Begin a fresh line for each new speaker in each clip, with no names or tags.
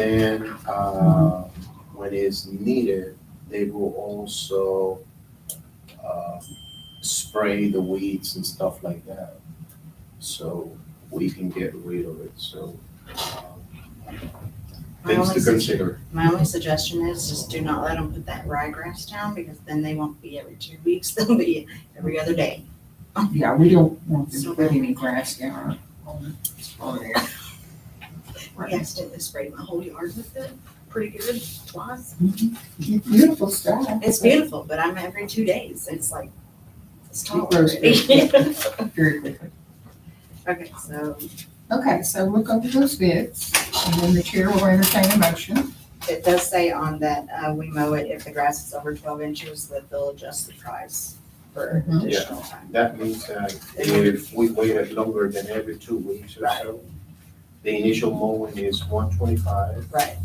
Then, uh, when it's needed, they will also, uh, spray the weeds and stuff like that. So we can get rid of it, so, um,
My
things
only,
to
su-
consider.
my only suggestion is just do not let them put that ryegrass down because then they won't be every two weeks, they'll be every other day.
Yeah, we don't want to put any grass down on, on there.
I accidentally sprayed my whole yard with it, pretty good twice.
Mm-hmm. Beautiful stuff.
It's beautiful, but I'm every two days, it's like, it's tall
It grows
already.
Very quickly.
Okay, so
Okay, so look over those bids, and then the chair will entertain a motion.
it does say on that, uh, we mow it if the grass is over twelve inches, that they'll adjust the price for
Mhm.
additional time.
That means that if we waited longer than every two weeks or so, the initial mowing is one twenty-five,
Right,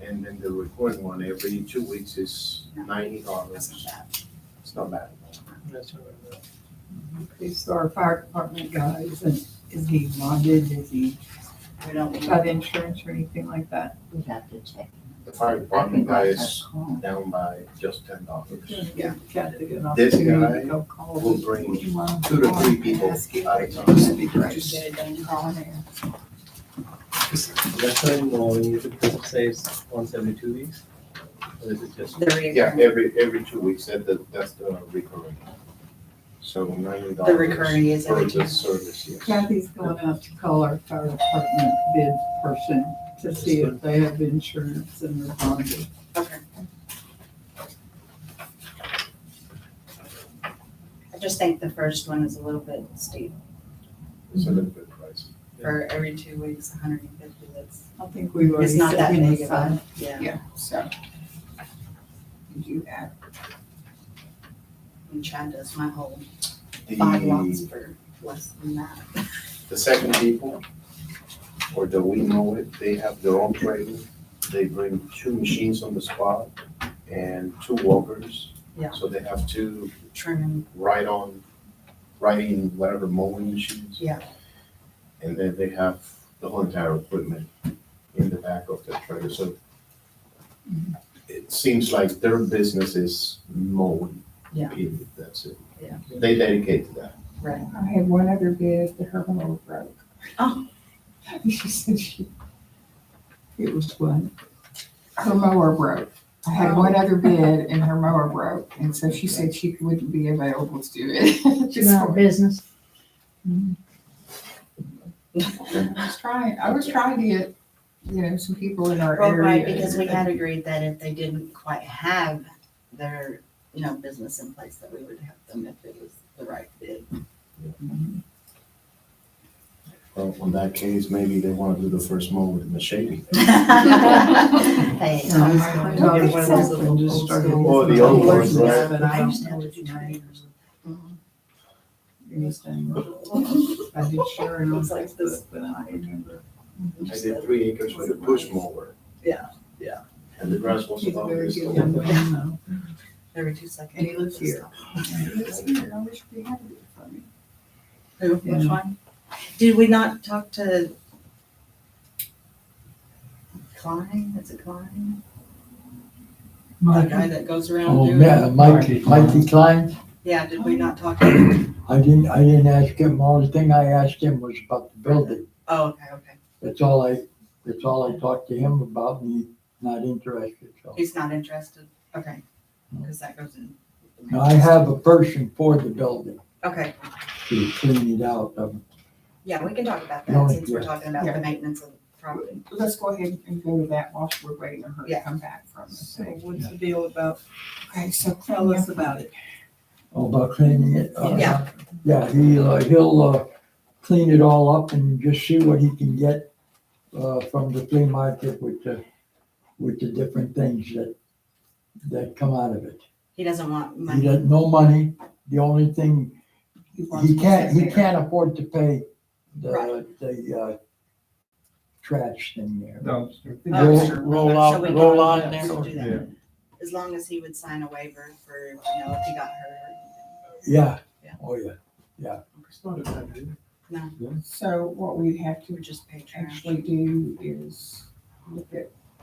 and then the recording one every two weeks is ninety
that's
dollars.
not bad.
It's not bad.
Okay, so our fire department guy, isn't, is he bonded, is he
We don't,
got insurance or anything like that?
We'd have to check.
The fire
I
department
think
guy
that's
is
a call.
down by just ten dollars.
Yeah.
Got to get an
This
opportunity
guy
to go call.
will
these
bring
people you want to
Two to
call
three
and
people
ask if
at a
they
time.
should be great.
just get it done.
Call in there.
That's why mowing you should say it's once every two weeks, or is it just?
The reoccurring.
Yeah, every, every two weeks, that, that- that's the recurring. So ninety
The
dollars.
recurring is
For
every two.
the service, yes.
Kathy's going out to call our fire department bid person to see if they have insurance and they're bonded.
Okay. I just think the first one is a little bit steep
It's a little bit pricey.
for every two weeks, hundred and fifty, that's,
I think we've already
it's not
set
that
him
big of
aside.
a, yeah.
Yeah, so. We do that.
And Chad does my whole five lots
The,
for less than that.
the second people, or the we know it, they have their own trailer. They bring two machines on the spot and two walkers.
Yeah.
So they have two
Trimming,
write on, writing whatever mowing machines.
Yeah.
And then they have the whole entire equipment in the back of the trailer, so it seems like their business is mowing.
Yeah.
Period, that's it.
Yeah.
They dedicate to that.
right.
I had one other bid, the Herman broke.
Oh.
She said she,
It was one.
her mower broke. I had
Oh.
one other bid and her mower broke, and so she said she wouldn't be available to do it. Just
About business.
I was trying, I was trying to get, you know, some people in our
Well,
area.
right, because we had agreed that if they didn't quite have their, you know, business in place, that we would help them if it was the right bid.
Well, in that case, maybe they wanna do the first mow with machete.
Hey, I was
I
going to
know
get one of those
exactly.
little
Just
old
started
school-
Oh, the old ones,
Yeah,
right?
But I
Used
don't
to
know
have to
his
do
name.
trainers.
Anything. I did Sharon on
Looks like
Facebook, but I don't remember.
I did three acres with a push mower.
Yeah, yeah.
And the grass was
He's a
about
very
this
good
tall.
young man, though.
Every two seconds.
And he lives here.
I wish we had it for me.
Who, which one? Did we not talk to Klein, is it Klein? The guy that goes around
Oh,
doing.
yeah, Mike, Mikey Klein,
Yeah, did we not talk to him?
I didn't, I didn't ask him, all the thing I asked him was about the building.
Oh, okay, okay.
That's all I, that's all I talked to him about, and he's not interested, so.
He's not interested, okay, because that goes in.
Now, I have a person for the building
Okay,
to clean it out, um,
yeah, we can talk about
No,
that since we're
yeah.
talking about
Yeah.
the maintenance of the property.
Let's go ahead and go to that whilst we're waiting on her to
Yeah.
come back from us.
So what's the deal about,
Okay, so
tell us about it.
about cleaning it. uh,
Yeah.
Yeah, he, uh, he'll, uh, clean it all up and just see what he can get, uh, from the flea market with the, with the different things that, that come out of it.
He doesn't want
He
money.
has no money, the only thing
wants
He
to
can't,
sit
he
there.
can't afford to pay the,
Right.
the, uh, trash thing there.
Dumpster.
The
Roll,
dumpster.
roll
So
out,
we
roll
don't
out
have
there.
to do that. As long as he would sign a waiver for, you know, if he got hurt.
Yeah,
Yeah.
oh, yeah.
It's not a hundred.
So what we have
He
to
would just pay trash.
actually do is look at